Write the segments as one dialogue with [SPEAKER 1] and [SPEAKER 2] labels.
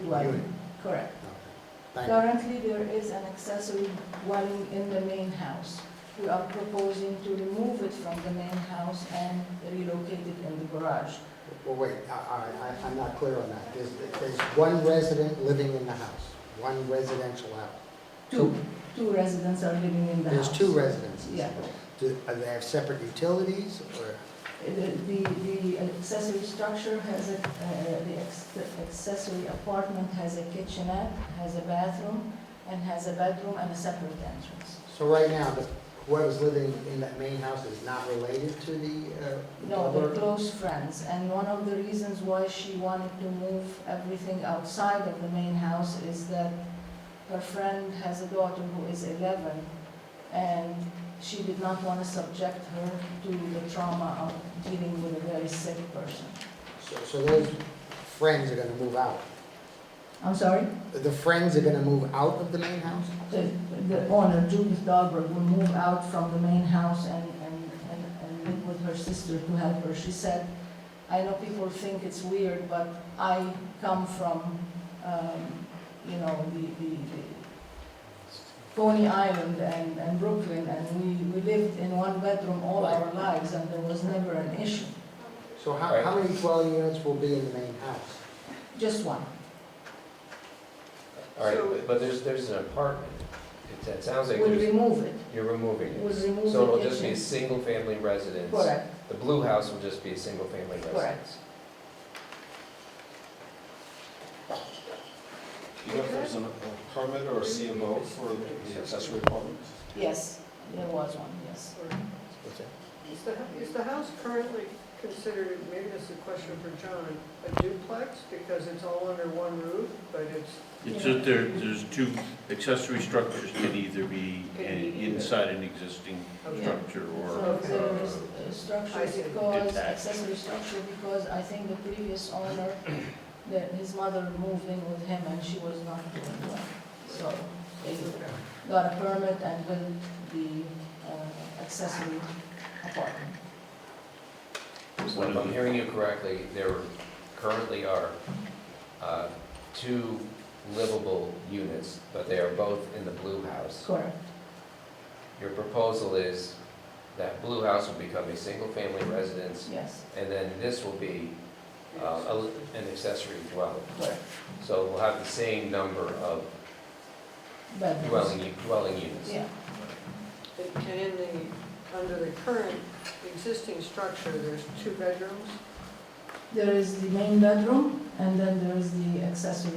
[SPEAKER 1] dwelling,
[SPEAKER 2] Unit.
[SPEAKER 1] correct.
[SPEAKER 2] Okay. Thank you.
[SPEAKER 1] Currently, there is an accessory dwelling in the main house. We are proposing to remove it from the main house and relocate it in the garage.
[SPEAKER 2] Well, wait, I, I, I- I'm not clear on that. There's, there's one resident living in the house, one residential house.
[SPEAKER 1] Two, two residents are living in the
[SPEAKER 2] There's
[SPEAKER 1] house.
[SPEAKER 2] two residences.
[SPEAKER 1] Yeah.
[SPEAKER 2] Do, are they have separate utilities or?
[SPEAKER 1] The, the the accessory structure has a, uh, the ex- the accessory apartment has a kitchenette, has a bathroom, and has a bedroom and a separate entrance.
[SPEAKER 2] So right now, the- whoever's living in that main house is not related to the, uh?
[SPEAKER 1] No, they're
[SPEAKER 2] Dover?
[SPEAKER 1] close friends, and one of the reasons why she wanted to move everything outside of the main house is that her friend has a daughter who is 11, and she did not want to subject her to the trauma of dealing with a very sick person.
[SPEAKER 2] So, so those friends are gonna move out.
[SPEAKER 1] I'm sorry?
[SPEAKER 2] The friends are gonna move out of the main house?
[SPEAKER 1] the the owner, Judith Dahlberg, will move out from the main house and, and, and and live with her sister to help her. She said, I know people think it's weird, but I come from, um, you know, the, the, the Coney Island and, and Brooklyn, and we, we lived in one bedroom all our lives, and there was never an issue,
[SPEAKER 2] So how, how many dwelling units will be in the main house?
[SPEAKER 1] just one.
[SPEAKER 3] All right,
[SPEAKER 1] So-
[SPEAKER 3] but- but there's, there's an apartment. It- It sounds like
[SPEAKER 1] We'll
[SPEAKER 3] there's,
[SPEAKER 1] remove it,
[SPEAKER 3] you're removing it.
[SPEAKER 1] we'll remove the
[SPEAKER 3] So it'll just be a
[SPEAKER 1] kitchen.
[SPEAKER 3] single-family residence.
[SPEAKER 1] Correct,
[SPEAKER 3] The blue house will just be a single-family
[SPEAKER 1] Correct.
[SPEAKER 3] residence.
[SPEAKER 4] Do you know if there's an- a permit or a CMO for the accessory apartment?
[SPEAKER 1] yes, there was one, yes.
[SPEAKER 2] What's that?
[SPEAKER 5] Is the, is the house currently considered, maybe this is a question for John, a duplex because it's all under one roof, but it's,
[SPEAKER 6] It's just there, there's two accessory structures can either be in- inside an existing
[SPEAKER 5] okay.
[SPEAKER 6] structure or,
[SPEAKER 1] So there is a
[SPEAKER 5] I
[SPEAKER 1] structure
[SPEAKER 5] see.
[SPEAKER 1] because,
[SPEAKER 6] Detached.
[SPEAKER 1] accessory structure because I think the previous owner, that his mother moved in with him and she was not doing well. So they got a permit and built the uh, accessory apartment.
[SPEAKER 3] So if I'm hearing you correctly, there currently are uh, two livable units, but they are both in the blue house.
[SPEAKER 1] Correct.
[SPEAKER 3] Your proposal is that blue house will become a single-family residence,
[SPEAKER 1] Yes,
[SPEAKER 3] and then this will be uh, a- an accessory dwelling.
[SPEAKER 1] correct.
[SPEAKER 3] So we'll have the same number of
[SPEAKER 1] Bedrooms.
[SPEAKER 3] dwelling, u- dwelling units.
[SPEAKER 1] Yeah,
[SPEAKER 5] And in the, under the current existing structure, there's two bedrooms?
[SPEAKER 1] there is the main bedroom and then there is the accessory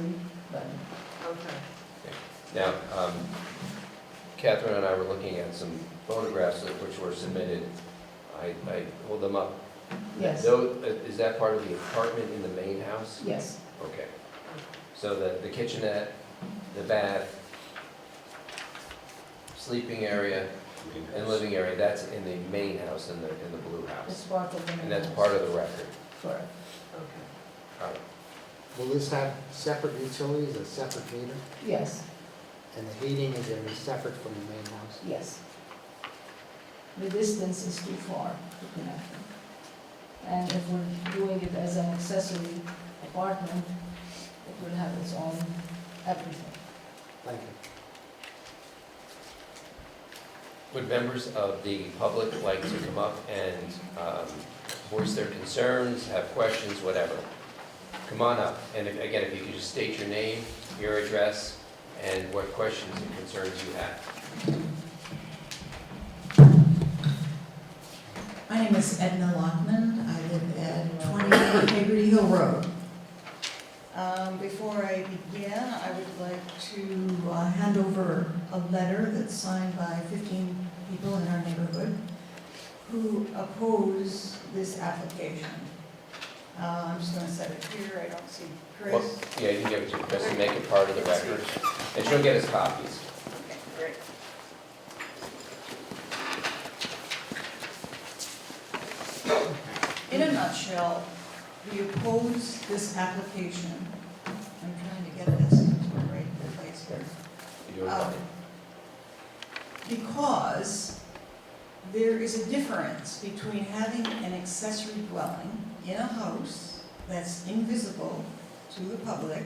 [SPEAKER 1] bedroom.
[SPEAKER 5] Okay.
[SPEAKER 3] Now, um, Catherine and I were looking at some photographs that- which were submitted. I, I pulled them up.
[SPEAKER 1] Yes,
[SPEAKER 3] Tho- Is that part of the apartment in the main house?
[SPEAKER 1] yes,
[SPEAKER 3] Okay. So the, the kitchenette, the bath, sleeping area, and living area, that's in the main house, in the, in the blue
[SPEAKER 1] it's
[SPEAKER 3] house.
[SPEAKER 1] part of the main
[SPEAKER 3] And that's part of the record.
[SPEAKER 1] Correct.
[SPEAKER 5] Okay.
[SPEAKER 3] All right.
[SPEAKER 2] Will this have separate utilities, a separate meter?
[SPEAKER 1] Yes.
[SPEAKER 2] And the heating is gonna be separate from the main house?
[SPEAKER 1] Yes. The distance is too far to connect them. And if we're doing it as an accessory apartment, it will have its own everything.
[SPEAKER 2] Thank you.
[SPEAKER 3] Would members of the public like to come up and um, voice their concerns, have questions, whatever? Come on up, and if- again, if you could just state your name, your address, and what questions and concerns you have.
[SPEAKER 7] My name is Edna Lockman. I live at 28 Hagerty Hill Road. Um, Before I begin, I would like to uh, hand over a letter that's signed by 15 people in our neighborhood who oppose this application. Uh, I'm just going to set it here. I don't see
[SPEAKER 3] Well,
[SPEAKER 7] Chris.
[SPEAKER 3] Yeah, you can give it to Chris and make it part of the record, and she'll get us copies.
[SPEAKER 7] Okay, great. In a nutshell, we oppose this application. I'm trying to get this into the right place here.
[SPEAKER 3] You doing
[SPEAKER 7] Oh,
[SPEAKER 3] fine.
[SPEAKER 7] Um, Because there is a difference between having an accessory dwelling in a house that's invisible to the public